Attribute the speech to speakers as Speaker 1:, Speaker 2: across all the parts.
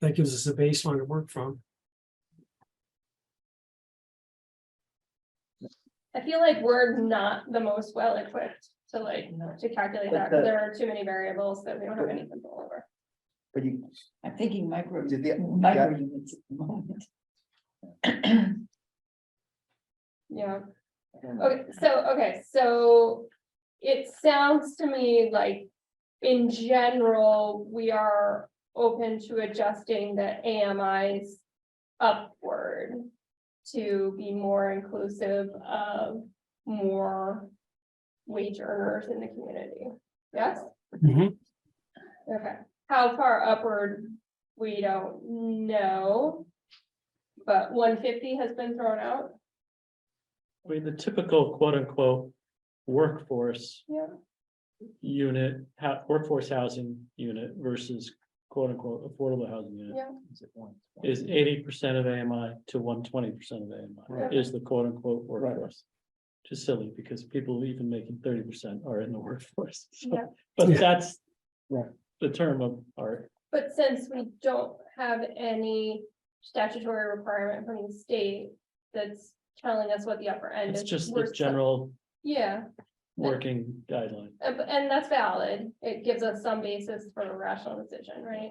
Speaker 1: that gives us a baseline to work from.
Speaker 2: I feel like we're not the most well equipped to like, to calculate
Speaker 3: But
Speaker 2: that, 'cause
Speaker 3: the-
Speaker 2: there are too many variables that we don't have any control over.
Speaker 3: But you,
Speaker 4: I'm thinking micro,
Speaker 3: Did the-
Speaker 4: micro units at the moment.
Speaker 2: Yeah,
Speaker 3: I don't know.
Speaker 2: okay, so, okay, so it sounds to me like in general, we are open to adjusting the AMIs upward to be more inclusive of more wage earners in the community. Yes? Okay, how far upward, we don't know. But one fifty has been thrown out,
Speaker 5: I mean, the typical quote unquote workforce
Speaker 2: yeah,
Speaker 5: unit, ha- workforce housing unit versus quote unquote affordable housing unit.
Speaker 2: yeah,
Speaker 3: Is it one?
Speaker 5: Is eighty percent of AMI to one twenty percent of
Speaker 2: Right.
Speaker 5: AMI is the quote unquote workforce. Just silly because people even making thirty percent are in the workforce. So,
Speaker 2: Yeah.
Speaker 5: But
Speaker 1: Yeah.
Speaker 5: that's.
Speaker 3: Right.
Speaker 5: The term of art.
Speaker 2: but since we don't have any statutory requirement from the state. That's telling us what the upper end is.
Speaker 5: It's just
Speaker 2: we're
Speaker 5: the
Speaker 2: still-
Speaker 5: general
Speaker 2: Yeah,
Speaker 5: working guideline.
Speaker 2: and, Uh, and that's valid, it gives us some basis for a rational decision, right?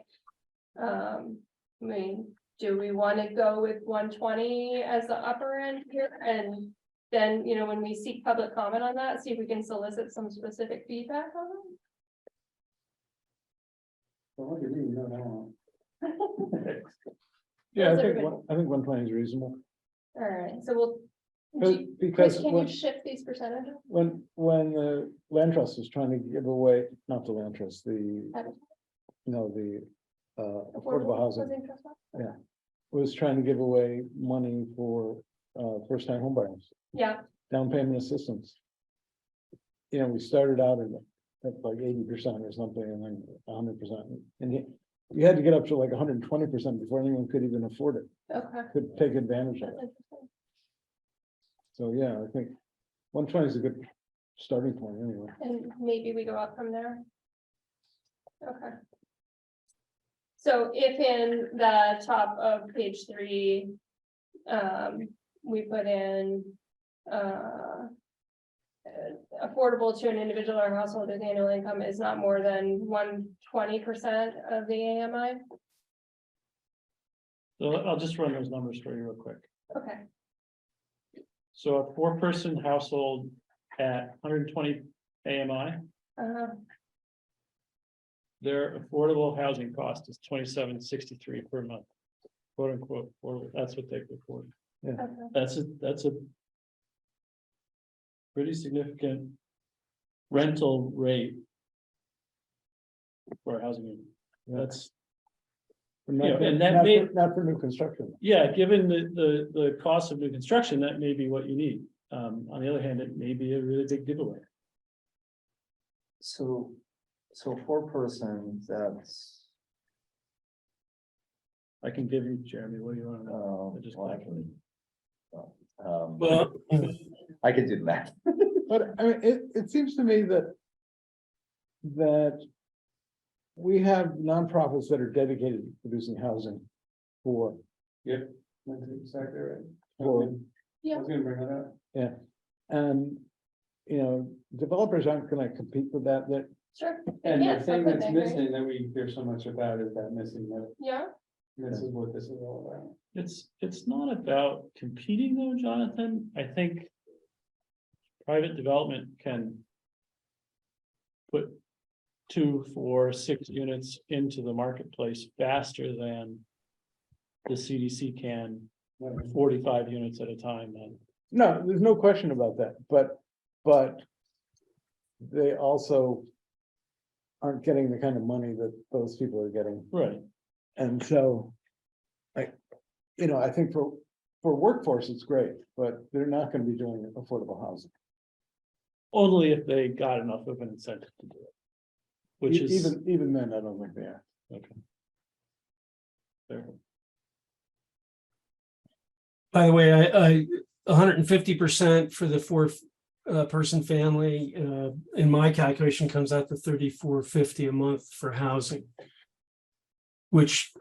Speaker 2: Um, I mean, do we wanna go with one twenty as the upper end here and? Then, you know, when we seek public comment on that, see if we can solicit some specific feedback on
Speaker 3: Well, look at you, you know that one.
Speaker 2: it?
Speaker 6: Yeah, I
Speaker 2: Those are
Speaker 6: think,
Speaker 2: good.
Speaker 6: one- I think one twenty is reasonable,
Speaker 2: Alright, so we'll.
Speaker 6: Because-
Speaker 2: do-
Speaker 6: because
Speaker 2: Can you
Speaker 6: when,
Speaker 2: shift these percentages?
Speaker 6: when, when the land trust was trying to give away, not the land trust, the,
Speaker 2: Affordable-
Speaker 6: no, the. Uh, affordable housing
Speaker 2: housing trust fund?
Speaker 6: was trying to give away money for, uh, first time homebuyers,
Speaker 2: Yeah,
Speaker 6: down payment assistance. You know, we started out at at like eighty percent or something, and then hundred percent, and you, you had to get up to like hundred and twenty percent before anyone could even afford it,
Speaker 2: okay.
Speaker 6: could take advantage of
Speaker 2: That's
Speaker 6: it.
Speaker 2: interesting.
Speaker 6: So, yeah, I think one twenty is a good starting point anyway.
Speaker 2: And maybe we go up from there. Okay. So if in the top of page three, um, we put in, uh. uh, Affordable to an individual or household whose annual income is not more than one twenty percent of the AMI,
Speaker 5: So I'll just run those numbers for you real quick.
Speaker 2: okay,
Speaker 5: So a four person household at hundred and twenty AMI,
Speaker 2: uh,
Speaker 5: their affordable housing cost is twenty-seven sixty-three per month. Quote unquote, affordable, that's what they report.
Speaker 2: okay,
Speaker 5: That's a, that's a. Pretty significant. Rental rate. For a housing, unit. that's,
Speaker 6: But not
Speaker 5: Yeah,
Speaker 6: for-
Speaker 5: and that
Speaker 6: not
Speaker 5: may-
Speaker 6: for- Not for new construction.
Speaker 5: yeah, given the, the, the cost of new construction, that may be what you need. Um, on the other hand, it may be a really big giveaway.
Speaker 3: So, so four persons, that's,
Speaker 5: I can give you, Jeremy, what do you want to know?
Speaker 3: um.
Speaker 5: I just
Speaker 3: well, I
Speaker 5: calculated.
Speaker 3: can- um,
Speaker 1: Well,
Speaker 3: I could do the math.
Speaker 6: But I mean, it, it seems to me that. That. We have nonprofits that are dedicated to producing housing for,
Speaker 3: That's exactly right.
Speaker 6: for,
Speaker 2: yeah.
Speaker 3: gonna bring that up.
Speaker 6: and. You know, developers aren't gonna compete with that, that,
Speaker 2: Sure. And the thing that's missing.
Speaker 3: that we hear so much about is that missing link.
Speaker 2: Yeah,
Speaker 3: This is what this is all about.
Speaker 5: It's, it's not about competing though, Jonathan, I think. Private development can. Put two, four, six units into the marketplace faster than. The CDC can forty-five units at a time then.
Speaker 6: no, there's no question about that, but, but. They also. Aren't getting the kind of money that those people are getting.
Speaker 5: Right.
Speaker 6: And so. I, you know, I think for, for workforce, it's great, but they're not gonna be doing affordable housing.
Speaker 5: Only if they got enough of an incentive to do it. Which
Speaker 6: E-
Speaker 5: is.
Speaker 6: Even, even then, I don't think they are.
Speaker 5: okay. Fair.
Speaker 1: By the way, I, I, hundred and fifty percent for the four uh, person family, uh, in my calculation comes out to thirty-four fifty a month for housing. Which